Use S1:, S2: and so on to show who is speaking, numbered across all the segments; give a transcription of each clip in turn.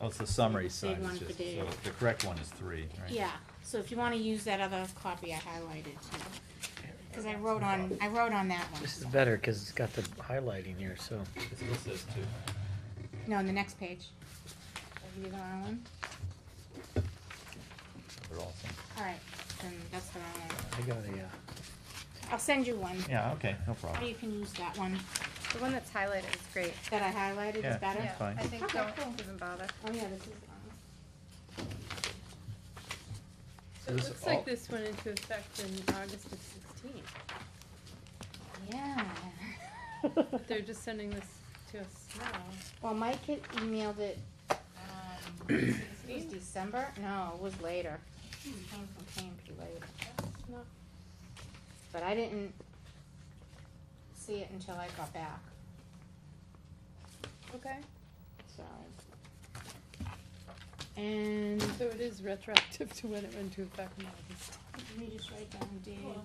S1: Oh, it's the summary
S2: Big
S1: sign,
S2: one
S1: it's
S2: for
S1: just, so
S2: Dave.
S1: the correct one is three, right?
S2: Yeah, so if you wanna use that other copy I highlighted too, cause I wrote on, I wrote on that one.
S3: This is better because it's got the highlighting here, so.
S1: It's listed as two.
S2: No, on the next page. Are you the wrong one?
S1: They're all same.
S2: Alright, then that's the wrong one.
S3: I got a, uh,
S2: I'll send you one,
S1: Yeah, okay, no
S2: or
S1: problem.
S2: you can use that one
S4: The one that's highlighted is great.
S2: that I highlighted
S1: Yeah.
S2: is better.
S4: Yeah,
S1: That's fine.
S4: I think
S2: Okay,
S4: don't
S2: cool.
S4: even bother.
S2: Oh yeah, this is the one.
S5: It
S1: This
S5: looks
S1: all-
S5: like this went into effect in August of sixteen.
S2: Yeah.
S5: But they're just sending this to us now.
S2: Well, Mike had emailed it, um, it was December, no, it was later. It Came from KMP later.
S5: Not-
S2: But I didn't see it until I got back,
S5: Okay,
S2: so. And
S5: so it is retroactive to when it went into effect in August.
S2: let me just write down Dave,
S5: Cool.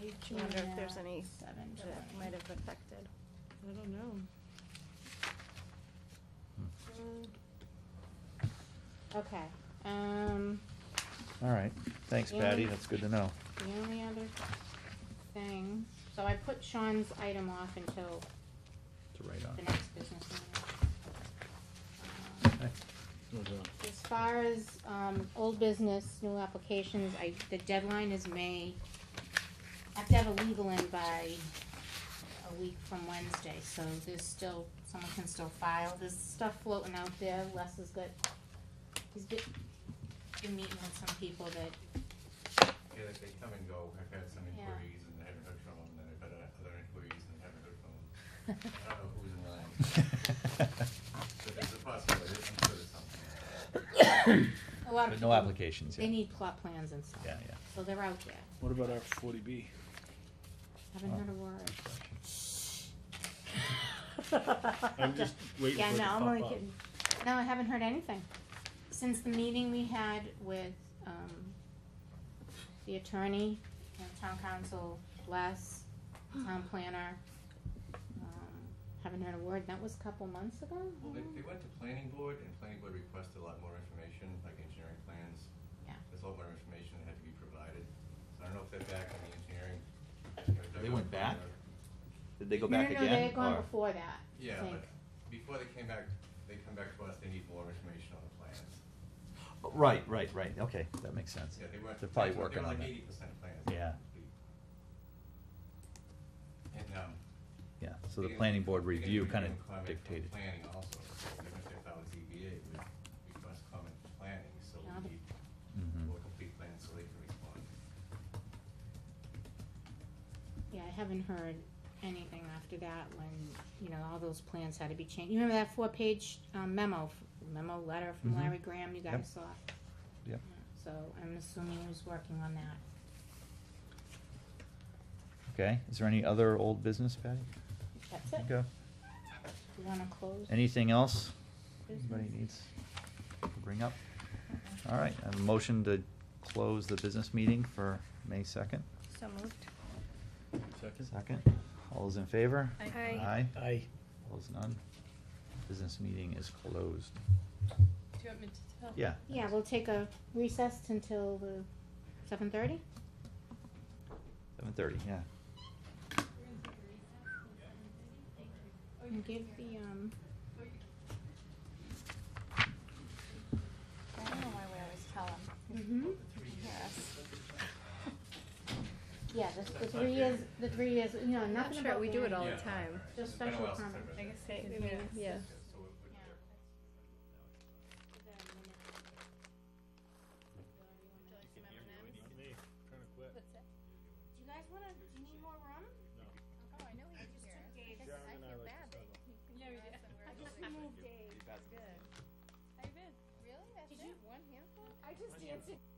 S2: Dave
S4: I wonder if there's
S2: Junior,
S4: any
S2: seven
S4: that it might
S2: twenty.
S4: have affected.
S5: I don't know. Uh,
S2: Okay, um,
S1: All right, thanks
S2: Yeah.
S1: Patty, that's good to know.
S2: the only other thing, so I put Sean's item off until
S1: To write
S2: the next business meeting. Um, As far as, um, old business, new applications, I, the deadline is May. I have to have a legal in by a week from Wednesday, so there's still, someone can still file, there's stuff floating out there, Les has got, he's been, been meeting with some people that,
S6: Yeah, like they come and go. I've had some
S2: Yeah.
S6: inquiries and I haven't heard from them, then I've had uh, other inquiries and haven't heard from them. I don't know who's in line, but there's a possibility, I'm sure there's something.
S2: a lot of
S1: But
S2: people.
S1: no applications
S2: They
S1: yet.
S2: need plot plans and stuff.
S1: Yeah, yeah.
S2: So they're out there,
S7: What about our forty B?
S2: haven't heard a word.
S7: I'm just waiting
S2: Yeah,
S7: for it to
S2: no,
S7: pop
S2: I'm only
S7: up.
S2: kidding. No, I haven't heard anything. Since the meeting we had with, um, the attorney, you know, town council, Les, town planner, um, haven't heard a word. That was a couple months ago?
S6: Well, they, they went to planning board and planning board requested a lot more information, like engineering plans.
S2: Yeah.
S6: There's a lot more information that had to be provided. So I don't know if they're back on the engineering. if they're
S1: They went
S6: going
S1: back?
S6: on the-
S1: Did they go
S2: No, no,
S1: back
S2: no, they
S1: again,
S2: had gone
S1: or?
S2: before that, I
S6: Yeah,
S2: think.
S6: but before they came back, they come back to us, they need more information on the plans.
S1: Oh, Right, right, right, okay, that makes sense.
S6: Yeah, they weren't.
S1: They're probably
S6: they were
S1: working on that,
S6: Eighty percent plans.
S1: Yeah.
S6: And, um.
S1: yeah, so the
S6: they-
S1: planning board
S6: they
S1: review
S6: didn't
S1: kinda
S6: even comment from
S1: dictated.
S6: Planning also, so even if they thought it was ZBA, it would request comment from planning, so
S2: Yeah, the-
S6: we need
S1: Mhm.
S6: more complete plans so they can respond.
S2: Yeah, I haven't heard anything after that when, you know, all those plans had to be changed. You remember that four-page um, memo, memo letter from
S1: Mhm.
S2: Larry Graham you
S1: Yep.
S2: guys saw?
S1: Yep.
S2: So I'm assuming he was working on that.
S1: Okay, is there any other old business, Patty?
S2: That's it.
S1: Okay.
S2: You wanna close?
S1: Anything else
S2: business? Uh-uh.
S1: anybody needs to bring up? All right, I have a motion to close the business meeting for May second.
S4: So moved.
S7: Second?
S1: Second, all those in favor?
S5: I-
S4: Aye.
S1: Aye,
S3: I,
S1: all those none? Business meeting is closed.
S5: Do you want me to tell?
S1: Yeah.
S2: Yeah, we'll take a recess until the seven thirty?
S1: Seven thirty, yeah.
S2: And give the, um,
S4: I don't know why we always tell them.
S2: mhm.
S5: Mm-hmm.
S2: Yeah, the, the three years, the three years, you know,
S5: Not
S2: nothing
S5: sure,
S2: about
S5: we do it all
S2: hearing.
S5: the
S6: Yeah.
S5: time.
S2: Just
S6: It's been a
S2: special
S6: while since I've
S2: comment.
S6: read
S5: I
S6: that.
S5: guess they,
S4: I mean, yeah.
S6: So it would-
S2: Do you guys wanna, do you need more room?
S4: Oh,
S5: Yeah, we did.
S4: Really? That's it?
S2: I just danced.